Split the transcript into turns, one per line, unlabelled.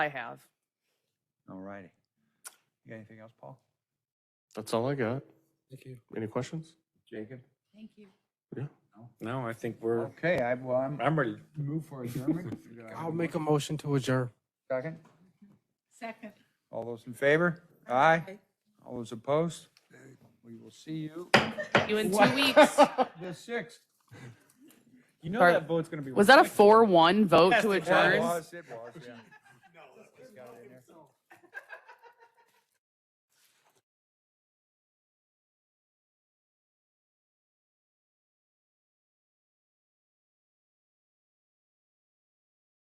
I have.
All righty. You got anything else, Paul?
That's all I got.
Thank you.
Any questions?
Jacob?
Thank you.
Yeah.
No, I think we're,
Okay, I, well, I'm,
I'm ready.
move for adjournment. Do I have
I'll make a motion to adjourn.
Second?
Second.
All those in favor? Aye. All those opposed? We will see you
You in two weeks.
the sixth. You know
Sorry.
vote's gonna be.
Was that a four-one vote to
Yes, it
adjourn?
was, it was, yeah.